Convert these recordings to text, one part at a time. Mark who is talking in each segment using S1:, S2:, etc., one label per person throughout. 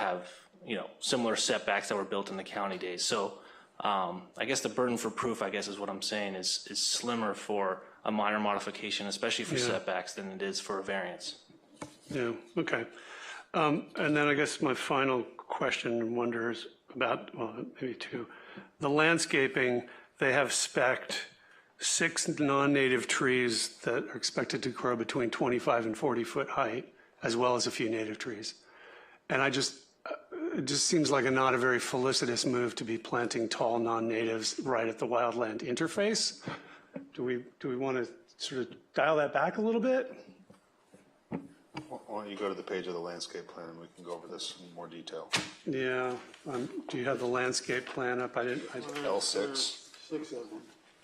S1: have, you know, similar setbacks that were built in the county days. So um, I guess the burden for proof, I guess is what I'm saying, is, is slimmer for a minor modification, especially for setbacks, than it is for a variance.
S2: Yeah, okay. Um, And then I guess my final question and wonder is about, well, maybe two. The landscaping, they have specked six non-native trees that are expected to grow between 25 and 40-foot height, as well as a few native trees. And I just, uh, it just seems like a not a very felicitous move to be planting tall non-natives right at the wildland interface. Do we, do we want to sort of dial that back a little bit?
S3: Why don't you go to the page of the landscape plan and we can go over this in more detail.
S2: Yeah, um, do you have the landscape plan up? I didn't, I,
S3: L six,
S4: Six of them.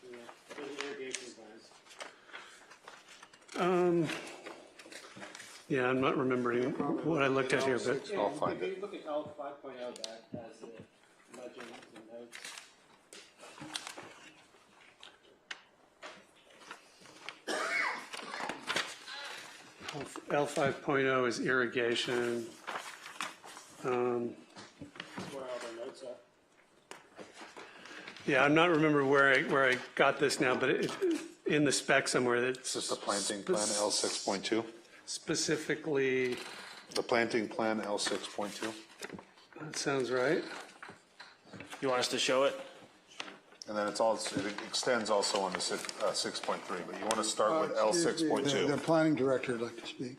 S4: yeah. There's irrigation plans.
S2: yeah, I'm not remembering what I looked at here, but,
S3: I'll find
S4: If
S2: Mm-hmm.
S3: it.
S4: you look at L five point oh, that has the legend and notes.
S2: L five oh is irrigation.
S4: That's where all the notes are.
S2: Yeah, I'm not remembering where I, where I got this now, but it, in the spec somewhere that's
S3: This is the planting plan, L six point two.
S2: specifically,
S3: The planting plan, L six point two.
S2: that sounds right.
S1: You want us to show it?
S3: And then it's all, it extends also on the six, uh, six point three, but you want to start with L six point
S4: The-
S3: two.
S4: The planning director would like to speak.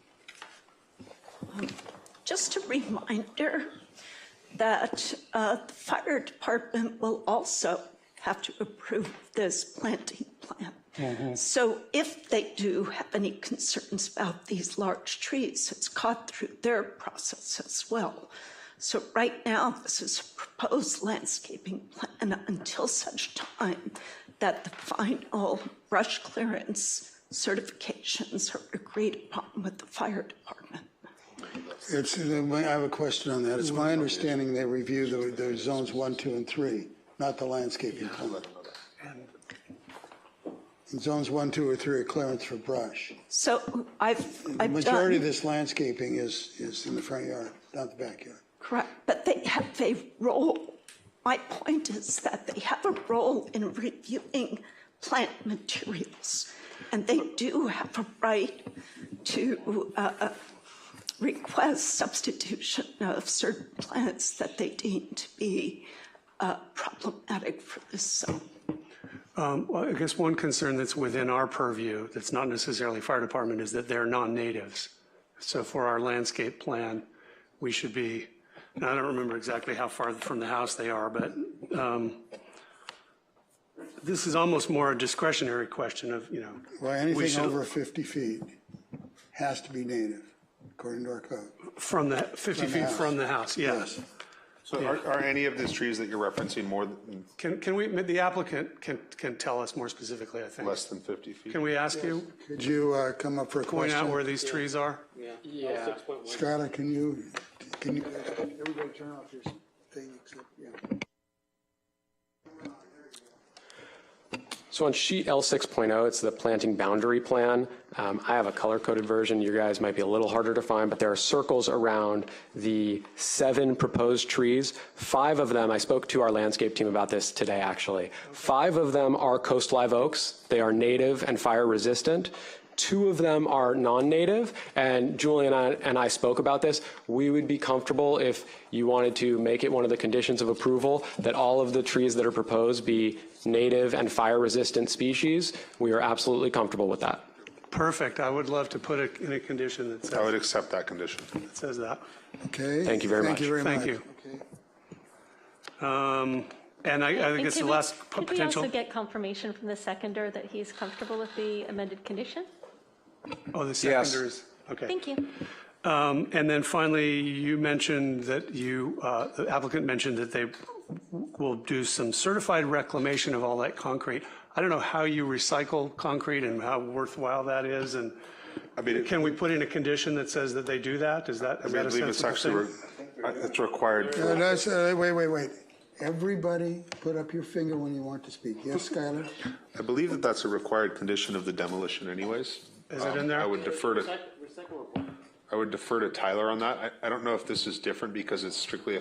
S5: Just a reminder that uh, the fire department will also have to approve this planting plan. So if they do have any concerns about these large trees, it's caught through their process as well. So right now, this is a proposed landscaping plan until such time that the final brush clearance certifications are agreed upon with the fire department.
S6: It's, uh, I have a question on that. It's my understanding they review the, the zones one, two, and three, not the landscaping plan. And zones one, two, or three are clearance for brush.
S5: So I've,
S6: The
S5: I've
S6: majority of
S5: done,
S6: this landscaping is, is in the front yard, not the backyard.
S5: correct, but they have a role. My point is that they have a role in reviewing plant materials. And they do have a right to uh, request substitution of certain plants that they deem to be uh, problematic for this zone.
S2: Well, I guess one concern that's within our purview, that's not necessarily fire department, is that they're non-natives. So for our landscape plan, we should be, and I don't remember exactly how far from the house they are, but um, this is almost more a discretionary question of, you know,
S6: Well,
S2: We
S6: anything
S2: should-
S6: over 50 feet has to be native, according to our code.
S2: from the, 50
S6: From the
S2: feet
S6: house.
S2: from the house, yes.
S3: So are, are any of these trees that you're referencing more than,
S2: Can, can we, the applicant can, can tell us more specifically, I think.
S3: less than fifty feet?
S2: Can we ask you,
S6: Could you uh, come up for a
S2: point out where
S6: question?
S2: these trees are?
S4: Yeah. Six point one.
S6: Skylar, can you, can you? Everybody turn off your thing except, yeah.
S7: So on sheet L 6.0, it's the planting boundary plan. Um, I have a color-coded version. You guys might be a little harder to find, but there are circles around the seven proposed trees. Five of them, I spoke to our landscape team about this today, actually. Five of them are coast live oaks. They are native and fire-resistant. Two of them are non-native, and Julie and I, and I spoke about this. We would be comfortable if you wanted to make it one of the conditions of approval that all of the trees that are proposed be native and fire-resistant species. We are absolutely comfortable with that.
S2: Perfect. I would love to put it in a condition that
S3: I
S2: says,
S3: would accept that condition.
S2: that says that.
S6: Okay.
S7: Thank you very
S6: Thank
S7: much.
S6: you very much.
S2: Thank you.
S6: Okay.
S2: Um, And I, I think it's the
S8: could we-
S2: last p-
S8: Could we also
S2: potential,
S8: get confirmation from the seconder that he's comfortable with the amended condition?
S2: oh, the seconders. Okay.
S8: Thank you.
S2: Um, And then finally, you mentioned that you, uh, the applicant mentioned that they will do some certified reclamation of all that concrete. I don't know how you recycle concrete and how worthwhile that is, and
S3: I mean, it-
S2: can we put in a condition that says that they do that? Is that, is
S3: I mean, I
S2: that a
S3: believe it's actually,
S2: sensible
S3: re-
S2: thing?
S3: I- it's required.
S6: Uh, that's- uh, Wait, wait, wait. Everybody, put up your finger when you want to speak. Yes, Skylar?
S3: I believe that that's a required condition of the demolition anyways.
S2: Is it in there?
S3: I would defer to,
S4: Recycle report.
S3: I would defer to Tyler on that. I, I don't know if this is different because it's strictly a